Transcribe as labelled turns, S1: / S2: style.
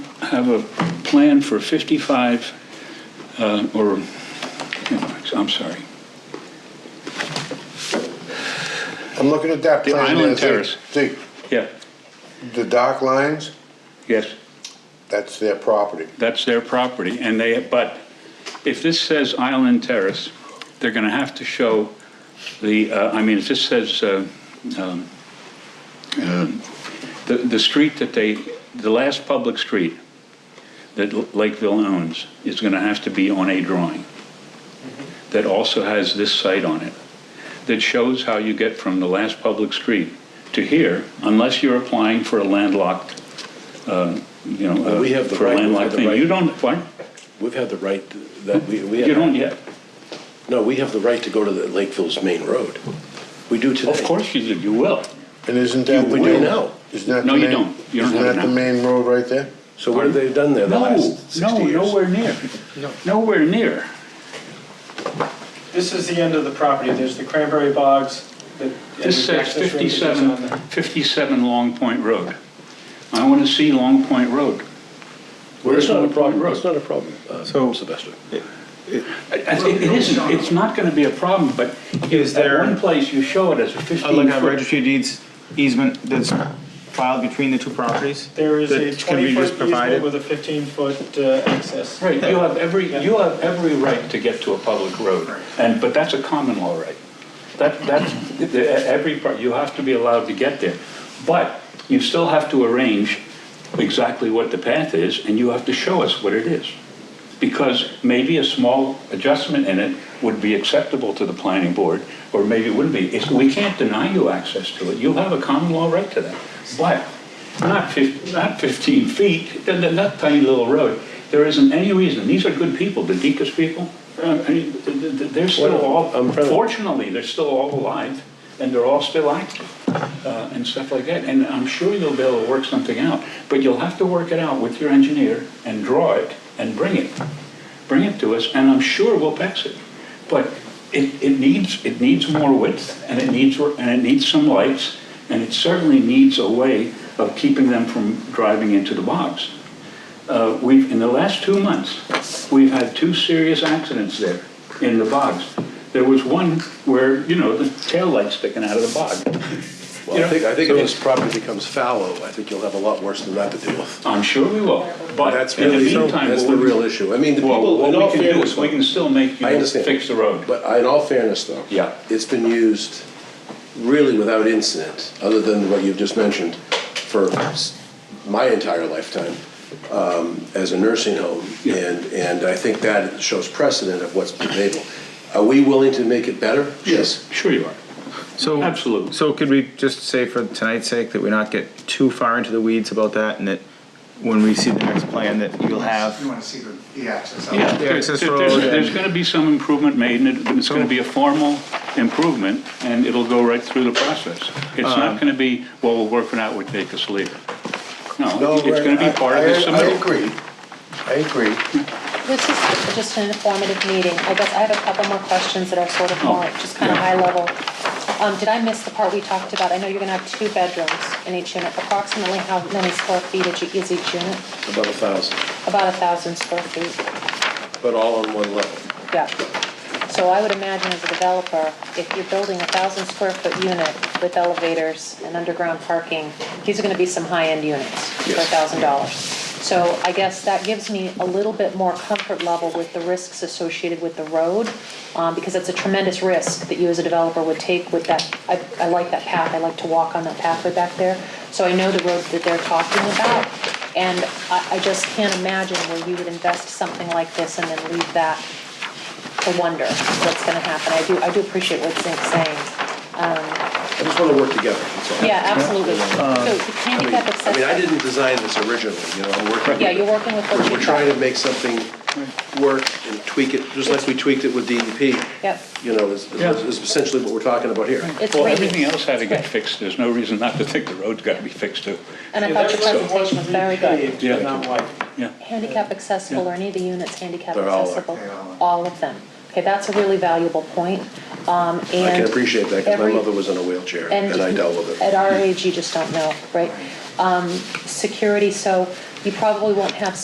S1: have a plan for 55, uh, or, I'm sorry,
S2: I'm looking at that
S1: The
S2: plan.
S1: island
S2: there.
S1: terrace.
S2: See,
S1: yeah,
S2: the dark lines,
S1: yes,
S2: that's their property.
S1: that's their property, and they, but if this says Island Terrace, they're going to have to show the, uh, I mean, if this says uh, um, uh, the the street that they, the last public street that L- Lakeville owns is going to have to be on a drawing
S3: Mm-hmm.
S1: that also has this site on it, that shows how you get from the last public street to here, unless you're applying for a landlocked, uh, you know,
S3: Well, we
S1: uh,
S3: have the
S1: for a
S3: right- we have
S1: landlocked
S3: the
S1: thing.
S3: right-
S1: You don't, what?
S3: We've had the right that we, we have.
S1: You don't yet.
S3: No, we have the right to go to the Lakeville's main road. We do today.
S1: Of course you do, you will.
S2: And isn't that the
S3: We
S2: main?
S3: do now.
S2: Isn't that
S1: No,
S2: the
S1: you
S2: main-
S1: don't. You don't
S2: Isn't
S1: have it
S2: that the
S1: now.
S2: main road right there?
S3: So what have they done there the
S1: No,
S3: last
S1: no,
S3: 60 years?
S1: nowhere near. Nowhere near.
S4: This is the end of the property, there's the cranberry bogs. the-
S1: This
S4: and the
S1: says
S4: access road that goes on
S1: 57,
S4: there.
S1: 57 Long Point Road. I want to see Long Point Road.
S3: It's not a problem,
S1: Road.
S3: it's not a problem, uh,
S5: So-
S3: Sylvester.
S1: I- I- It it isn't, it's not going to be a problem, but
S5: Is
S1: at
S5: there- Oh,
S1: one place you show it as a
S5: I look at
S1: 15-foot.
S5: registry of deeds easement that's filed between the two properties.
S4: There is a
S5: that can be
S4: 20-foot
S5: just
S4: easement
S5: provided.
S4: with a 15-foot uh, access.
S1: Right, you have every, you have every right to get to a public road, and, but that's a common law right. That, that's, the- every, part- you have to be allowed to get there. But you still have to arrange exactly what the path is, and you have to show us what it is. Because maybe a small adjustment in it would be acceptable to the planning board, or maybe it wouldn't be. It's- We can't deny you access to it, you have a common law right to that. But not fif, not fifteen feet, and then that tiny little road, there isn't any reason, these are good people, the Deacon's people, uh, I mean, th- th- th- they're still all,
S3: I'm proud of-
S1: fortunately, they're still all alive, and they're all still active, uh, and stuff like that, and I'm sure you'll be able to work something out, but you'll have to work it out with your engineer, and draw it, and bring it, bring it to us, and I'm sure we'll pass it. But it, it needs, it needs more width, and it needs, and it needs some lights, and it certainly needs a way of keeping them from driving into the bogs. Uh, We've, in the last two months, we've had two serious accidents there in the bogs. There was one where, you know, the taillight's sticking out of the bog.
S3: Well, I think, I think if this property becomes fallow, I think you'll have a lot worse than that to deal with.
S1: I'm sure we will, but
S3: That's
S1: in the
S3: really-
S1: meantime.
S3: that's
S1: what
S3: the
S1: we-
S3: real issue. I mean, the
S1: Well,
S3: people-
S1: what
S3: in
S1: we
S3: all
S1: can do
S3: fairness-
S1: is We can still make
S3: I
S1: you
S3: understand.
S1: fix the road.
S3: But I- in all fairness, though.
S1: Yeah.
S3: It's been used really without incident, other than what you've just mentioned, for s- my entire lifetime um, as a nursing home.
S1: Yeah.
S3: And, and I think that shows precedent of what's been able. Are we willing to make it better? Yes.
S1: Sure you are.
S5: So
S1: Absolutely.
S5: So could we just say for tonight's sake that we not get too far into the weeds about that and that when we see the next plan that you'll
S6: You
S5: have.
S6: want to see the, the access.
S1: Yeah,
S5: the
S1: there-
S5: access
S1: there-
S5: road
S1: there's,
S5: and-
S1: there's gonna be some improvement made, and it- it's gonna be a formal improvement, and it'll go right through the process. It's
S5: Uh-huh.
S1: not gonna be, well, we'll work it out, we'll take us later. No, it's gonna be part of this
S2: I- I
S1: submittal.
S2: agree, I agree.
S7: This is just an informative meeting. I guess I have a couple more questions that are sort of more, just kind of
S1: yeah.
S7: high level. Um, did I miss the part we talked about? I know you're gonna have two bedrooms in each unit. Approximately how many square feet is each- is each unit?
S3: About a thousand,
S7: About a thousand square feet,
S3: but all on one level.
S7: yeah. So I would imagine as a developer, if you're building a thousand square foot unit with elevators and underground parking, these are gonna be some high-end units for a
S3: Yes.
S7: thousand dollars. So I guess that gives me a little bit more comfort level with the risks associated with the road, um, because it's a tremendous risk that you as a developer would take with that. I, I like that path, I like to walk on that pathway back there, so I know the road that they're talking about. And I, I just can't imagine where you would invest something like this and then leave that to wonder what's gonna happen. I do, I do appreciate what Zink's saying.
S3: I just want to work together, that's all.
S7: Yeah, absolutely. So the
S3: Um, I mean,
S7: handicap
S3: I mean, I
S7: accessibility,
S3: didn't design this originally, you know, I'm working.
S7: yeah, you're working with what
S3: We're-
S7: you've
S3: We're trying
S7: got.
S3: to make something work and tweak it, just like we tweaked it with E DEP.
S7: Yep.
S3: You know, is
S1: Yeah.
S3: is essentially what we're talking about here.
S7: It's
S1: Well,
S7: great.
S1: everything else had to get
S7: Right.
S1: fixed, there's no reason not to think the road's gotta be fixed too.
S7: And I
S4: Yeah,
S7: thought your
S4: that's what
S7: presentation was
S4: wants
S7: very good.
S4: repaved, but
S1: Yeah.
S4: not white.
S1: Yeah.
S7: Handicap accessible, or any of the units handicap
S3: They're all-
S7: accessible,
S6: They all are.
S7: all of them. Okay, that's a really valuable point, um,
S3: I
S7: and.
S3: can appreciate that, because my
S7: every-
S3: mother was in a wheelchair, and I dealt with
S7: At
S3: it.
S7: our age, you just don't know, right? Um, security, so you probably won't have